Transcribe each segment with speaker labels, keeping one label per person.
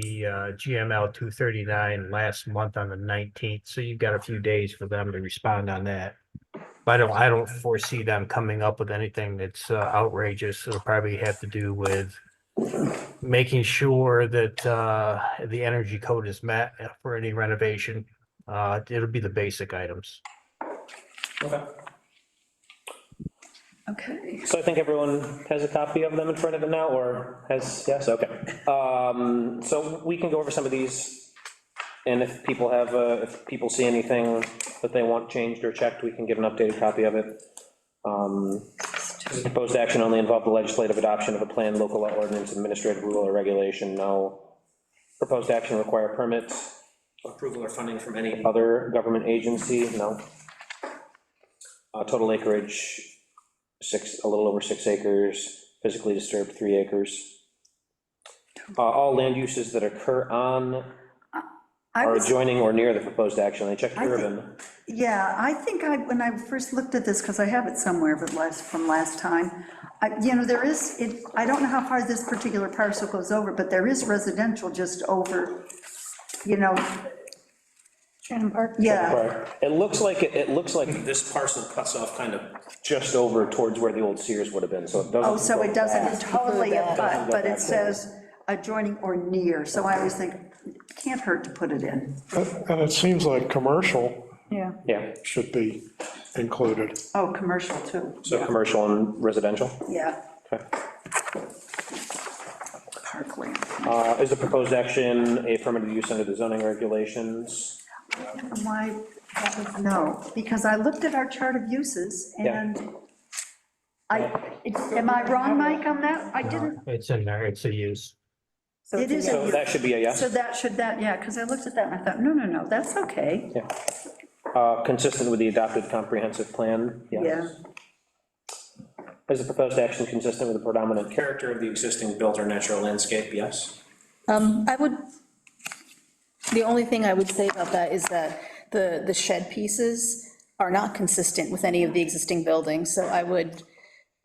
Speaker 1: the uh, GML two thirty-nine last month on the nineteenth, so you've got a few days for them to respond on that. But I don't, I don't foresee them coming up with anything that's uh, outrageous. It'll probably have to do with making sure that uh, the energy code is met for any renovation. Uh, It'll be the basic items.
Speaker 2: Okay.
Speaker 3: Okay.
Speaker 2: So I think everyone has a copy of them in front of it now, or has, yes, okay. Um, So we can go over some of these, and if people have, uh, if people see anything that they want changed or checked, we can get an updated copy of it. Um, Does the proposed action only involve the legislative adoption of a plan, local law ordinance, administrative rule or regulation? No. Proposed action require permits, approval or funding from any other government agency? No. Uh, Total acreage, six, a little over six acres, physically disturbed three acres. Uh, All land uses that occur on
Speaker 3: I
Speaker 2: or
Speaker 3: was,
Speaker 2: adjoining or near the proposed action, I checked
Speaker 3: I think-
Speaker 2: urban.
Speaker 3: yeah, I think I, when I first looked at this, because I have it somewhere, but last, from last time, I, you know, there is, it, I don't know how far this particular parcel goes over, but there is residential just over, you know,
Speaker 4: Shannon Park?
Speaker 3: yeah,
Speaker 2: Right. It looks like, it it looks like this parcel cuts off kind of just over towards where the old Sears would have been, so it doesn't.
Speaker 3: oh, so it doesn't totally
Speaker 4: Include that.
Speaker 3: abut,
Speaker 2: Doesn't
Speaker 3: but
Speaker 2: go
Speaker 3: it
Speaker 2: back
Speaker 3: says adjoining or near, so I always think, can't hurt to put it in.
Speaker 5: And it seems like commercial
Speaker 4: Yeah.
Speaker 2: Yeah,
Speaker 5: should be included.
Speaker 3: Oh, commercial too,
Speaker 2: so commercial and residential.
Speaker 3: yeah,
Speaker 2: Okay.
Speaker 3: parkland.
Speaker 2: Uh, Is the proposed action a permitted use under the zoning regulations?
Speaker 3: Why, that was no, because I looked at our chart of uses
Speaker 2: Yeah.
Speaker 3: and I, am I wrong, Mike, on that? I didn't,
Speaker 1: It's in there, it's a use.
Speaker 3: it is,
Speaker 2: So
Speaker 3: a-
Speaker 2: that should be a yes.
Speaker 3: so that should, that, yeah, because I looked at that and I thought, no, no, no, that's okay.
Speaker 2: Yeah. Uh, Consistent with the adopted comprehensive plan?
Speaker 3: Yeah,
Speaker 2: Is the proposed action consistent with the predominant character of the existing built or natural landscape? Yes.
Speaker 4: Um, I would, the only thing I would say about that is that the, the shed pieces are not consistent with any of the existing buildings, so I would,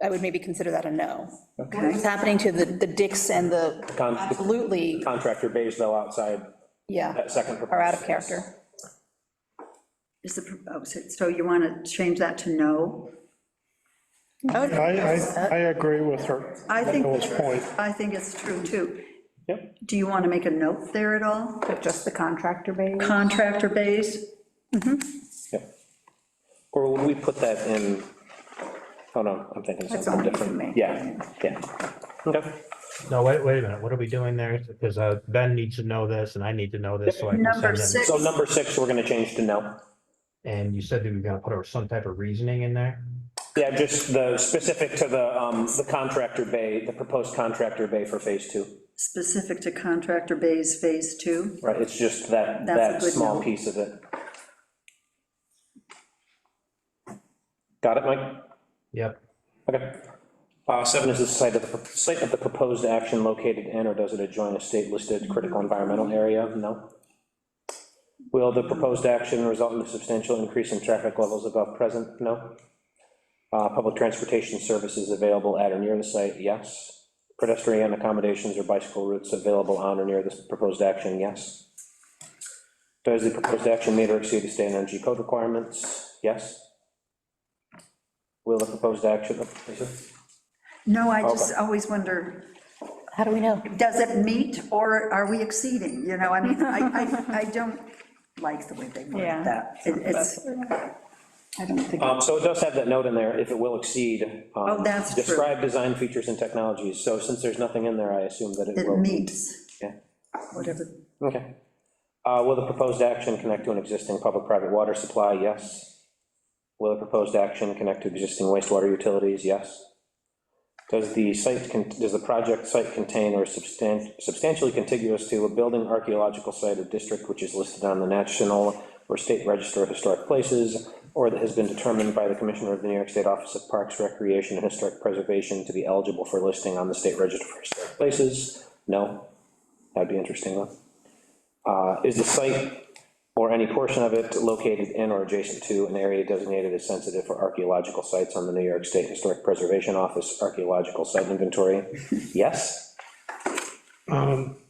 Speaker 4: I would maybe consider that a no. What's happening to the, the dicks and the,
Speaker 2: Con-
Speaker 4: absolutely,
Speaker 2: Contractor bays though outside
Speaker 4: yeah,
Speaker 2: that second.
Speaker 4: are out of
Speaker 2: proposal.
Speaker 4: character.
Speaker 3: is the, oh, so- so you want to change that to no?
Speaker 4: I would-
Speaker 5: I, I, I agree with her.
Speaker 3: I think,
Speaker 5: Nicole's point.
Speaker 3: I think it's true too.
Speaker 2: Yep.
Speaker 3: Do you want to make a note there at all?
Speaker 4: But Just the contractor bay?
Speaker 3: Contractor base?
Speaker 2: Yep. Or would we put that in, oh no, I'm thinking
Speaker 3: That's
Speaker 2: something
Speaker 3: all you can
Speaker 2: different.
Speaker 3: make.
Speaker 2: Yeah, yeah. Okay.
Speaker 1: No, wait, wait a minute, what are we doing there? Because uh, Ben needs to know this and I need to know this, so I can
Speaker 3: Number
Speaker 1: send them.
Speaker 3: six,
Speaker 2: So number six, we're gonna change to no.
Speaker 1: And you said that we we're gonna put our- some type of reasoning in there?
Speaker 2: Yeah, just the, specific to the, um, the contractor bay, the proposed contractor bay for phase two.
Speaker 3: specific to contractor base, phase two.
Speaker 2: Right, it's just that,
Speaker 3: That's a
Speaker 2: that
Speaker 3: good
Speaker 2: small
Speaker 3: note.
Speaker 2: piece of it. Got it, Mike?
Speaker 1: Yep.
Speaker 2: Okay. Uh, Seven is the site of, the site of the proposed action located in or does it adjoin a state-listed critical environmental area? No. Will the proposed action result in a substantial increase in traffic levels above present? No. Uh, Public transportation services available at or near the site? Yes. Pedestrian accommodations or bicycle routes available on or near this proposed action? Yes. Does the proposed action meet or exceed the state energy code requirements? Yes. Will the proposed action, oh, Lisa?
Speaker 3: No, I just always wonder,
Speaker 4: How do we know?
Speaker 3: does it meet or are we exceeding? You know, I mean, I, I, I don't like the way they word
Speaker 4: Yeah.
Speaker 3: that. It- It's, I don't think,
Speaker 2: Um, So it does have that note in there, if it will exceed. um,
Speaker 3: Oh, that's true.
Speaker 2: Describe design features and technologies, so since there's nothing in there, I assume that it
Speaker 3: it
Speaker 2: will.
Speaker 3: meets,
Speaker 2: Yeah.
Speaker 3: whatever.
Speaker 2: Okay. Uh, Will the proposed action connect to an existing public-private water supply? Yes. Will the proposed action connect to existing wastewater utilities? Yes. Does the site, con- does the project site contain or substan- substantially contiguous to a building, archaeological site, or district which is listed on the National or State Register of Historic Places, or that has been determined by the Commissioner of the New York State Office of Parks, Recreation, and Historic Preservation to be eligible for listing on the State Register for Historic Places? No. That'd be interesting, though. Uh, Is the site or any portion of it located in or adjacent to an area designated as sensitive for archaeological sites on the New York State Historic Preservation Office Archaeological Site Inventory? Yes?
Speaker 5: Um,